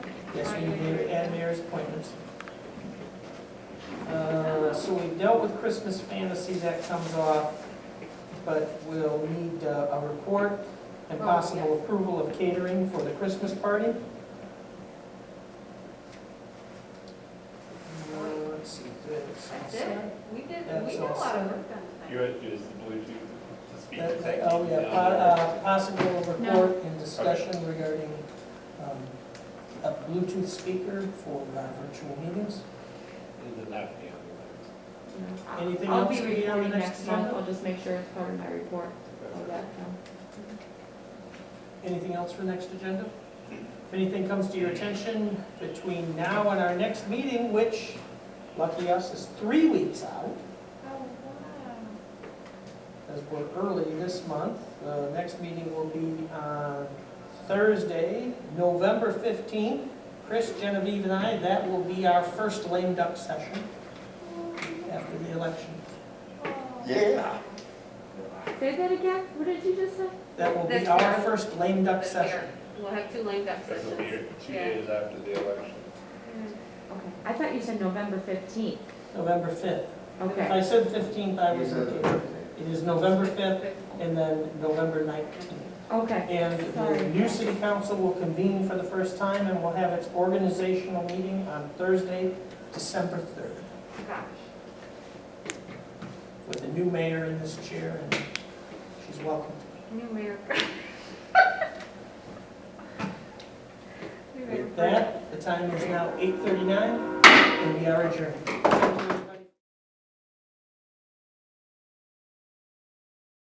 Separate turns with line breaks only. Yes, we did, and mayor's appointments. Uh, So we dealt with Christmas fantasy, that comes off, but we'll need uh, a report and
Oh,
possible approval of catering for the Christmas party. Uh, Uh, Let's see, that's all
That's
set.
it. We did,
That's
we did a lot
awesome.
of work on
You
that.
had to use the Bluetooth to speak.
That-
Thank
Oh,
you.
yeah, po- uh, possible report and discussion regarding um, a Bluetooth speaker for uh, virtual meetings.
And then that would be on
Anything
I'll
else
be
to be on the
reporting
next
next month,
agenda?
I'll just make sure it's covered in my report. I'll
the list.
let you know.
Anything else for next agenda? If anything comes to your attention between now and our next meeting, which lucky us is three weeks out,
Oh,
as we're early this month, the next meeting will be on Thursday, November 15th. Chris, Genevieve, and I, that will be our first lame duck session after the election.
Oh, wow.
Yeah.
Say that again, what did you just say?
That will be
This
our
year.
first lame duck
This
session.
year. We'll have two lame duck
That would be
sessions.
two
Yeah.
days after the election.
Okay, I thought you said November fifteenth.
November 5th. If
Okay,
I said 15th, I was okay. It is November 5th and then November 19th.
okay.
And the
Sorry.
new city council will convene for the first time and will have its organizational meeting on Thursday, December 3rd,
Oh, Gosh.
with the new mayor in this chair, and she's welcome.
New mayor. We better-
With that, the time is now 8:39, and we are adjourned.